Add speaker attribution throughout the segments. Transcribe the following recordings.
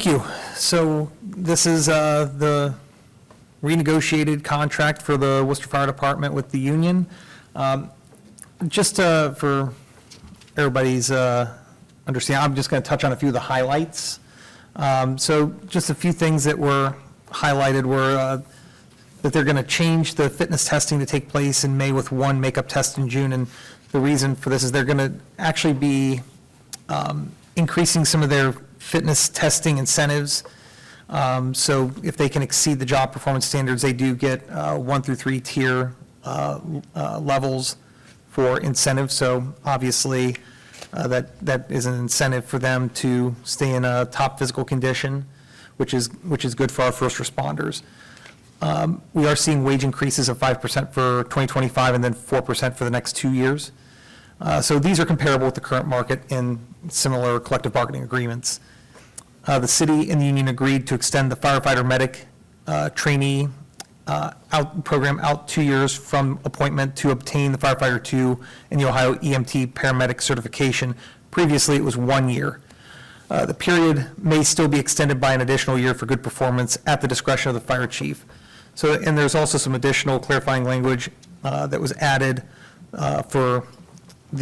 Speaker 1: Thank you. So this is uh, the renegotiated contract for the Worcester Fire Department with the union. Um, Just uh, for everybody's uh, understanding, I'm just going to touch on a few of the highlights. Um, So just a few things that were highlighted were uh, that they're going to change the fitness testing to take place in May with one makeup test in June. And the reason for this is they're going to actually be um, increasing some of their fitness testing incentives. Um, So if they can exceed the job performance standards, they do get uh, one through three tier uh, uh, levels for incentives. So obviously, uh, that, that is an incentive for them to stay in a top physical condition, which is, which is good for our first responders. Um, We are seeing wage increases of 5% for 2025 and then 4% for the next two years. Uh, So these are comparable with the current market in similar collective bargaining agreements. Uh, The city and the union agreed to extend the firefighter medic uh, trainee uh, out, program out two years from appointment to obtain the firefighter two and the Ohio EMT paramedic certification. Previously, it was one year. Uh, The period may still be extended by an additional year for good performance at the discretion of the fire chief. So, and there's also some additional clarifying language uh, that was added uh, for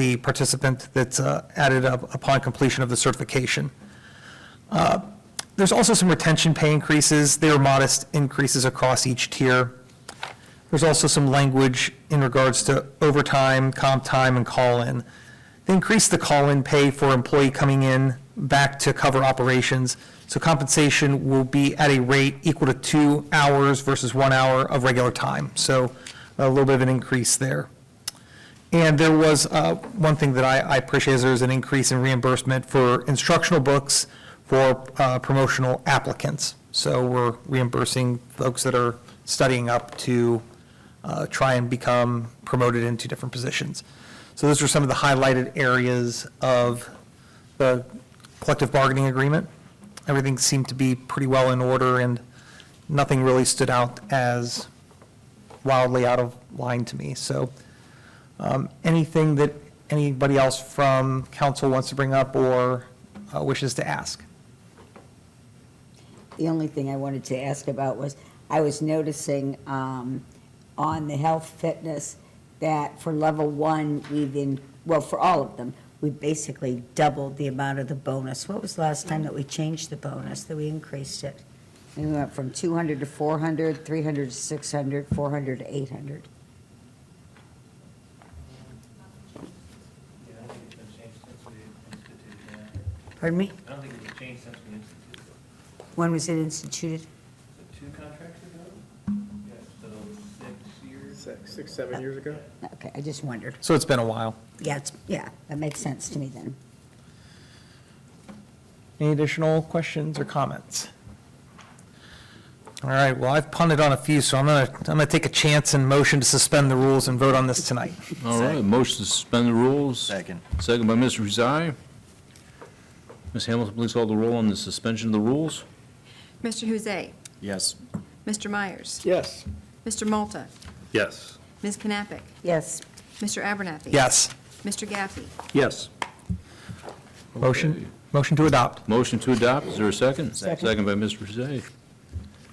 Speaker 1: the participant that's uh, added up upon completion of the certification. Uh, There's also some retention pay increases. They are modest increases across each tier. There's also some language in regards to overtime, comp time, and call-in. They increased the call-in pay for employee coming in back to cover operations, so compensation will be at a rate equal to two hours versus one hour of regular time, so a little bit of an increase there. And there was, uh, one thing that I, I appreciate is there's an increase in reimbursement for instructional books for uh, promotional applicants. So we're reimbursing folks that are studying up to uh, try and become promoted into different positions. So those are some of the highlighted areas of the collective bargaining agreement. Everything seemed to be pretty well in order, and nothing really stood out as wildly out of line to me. So um, Anything that anybody else from council wants to bring up or uh, wishes to ask?
Speaker 2: The only thing I wanted to ask about was, I was noticing um, on the health fitness that for level one, we've in, well, for all of them, we basically doubled the amount of the bonus. What was the last time that we changed the bonus, that we increased it? We went from 200 to 400, 300 to 600, 400 to 800.
Speaker 3: Yeah, I don't think it's been changed since we instituted that.
Speaker 2: Pardon me?
Speaker 3: I don't think it's been changed since we instituted it.
Speaker 2: When was it instituted?
Speaker 3: So two contracts ago? Yeah, so six years.
Speaker 4: six, six, seven years ago.
Speaker 2: Okay, I just wondered.
Speaker 1: So it's been a while.
Speaker 2: Yeah, it's, yeah, that makes sense to me then.
Speaker 1: Any additional questions or comments? All right, well, I've punted on a few, so I'm going to, I'm going to take a chance and motion to suspend the rules and vote on this tonight.
Speaker 5: All right, motion to suspend the rules. Second. Second by Mr. Ruzai. Ms. Hamilton, please call the roll on the suspension of the rules.
Speaker 6: Mr. Huzay.
Speaker 5: Yes.
Speaker 6: Mr. Myers.
Speaker 4: Yes.
Speaker 6: Mr. Malta.
Speaker 5: Yes.
Speaker 6: Ms. Knappich.
Speaker 2: Yes.
Speaker 6: Mr. Abernathy.
Speaker 1: Yes,
Speaker 6: Mr. Gaffey.
Speaker 5: Yes.
Speaker 1: motion, motion to adopt.
Speaker 5: Motion to adopt, is there a second?
Speaker 2: Second.
Speaker 5: Second by Mr. Ruzai.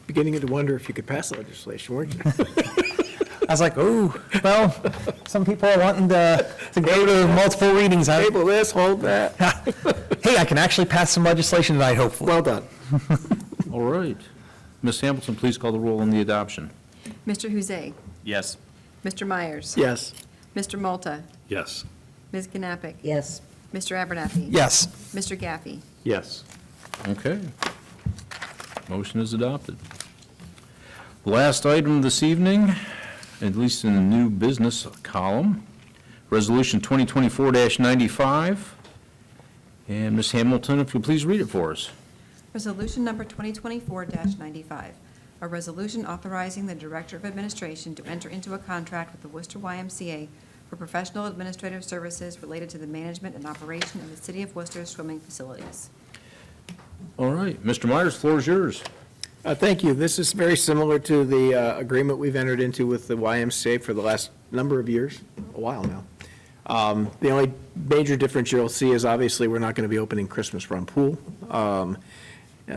Speaker 4: Beginning to wonder if you could pass the legislation, weren't you?
Speaker 1: I was like, oh, well, some people are wanting to, to go to multiple readings. I-
Speaker 4: Table this, hold that.
Speaker 1: Hey, I can actually pass some legislation tonight, hopefully.
Speaker 4: Well done.
Speaker 5: All right. Ms. Hamilton, please call the roll on the adoption.
Speaker 6: Mr. Huzay.
Speaker 5: Yes.
Speaker 6: Mr. Myers.
Speaker 4: Yes.
Speaker 6: Mr. Malta.
Speaker 5: Yes.
Speaker 6: Ms. Knappich.
Speaker 2: Yes.
Speaker 6: Mr. Abernathy.
Speaker 1: Yes.
Speaker 6: Mr. Gaffey.
Speaker 4: Yes.
Speaker 5: Okay. Motion is adopted. Last item this evening, at least in the new business column, Resolution 2024-95. And Ms. Hamilton, if you'll please read it for us.
Speaker 6: Resolution number 2024-95, a resolution authorizing the Director of Administration to enter into a contract with the Worcester YMCA for professional administrative services related to the management and operation of the City of Worcester swimming facilities.
Speaker 5: All right, Mr. Myers, floor is yours.
Speaker 4: Uh, Thank you. This is very similar to the uh, agreement we've entered into with the YMCA for the last number of years, a while now. Um, The only major difference you'll see is obviously we're not going to be opening Christmas Run Pool. Um,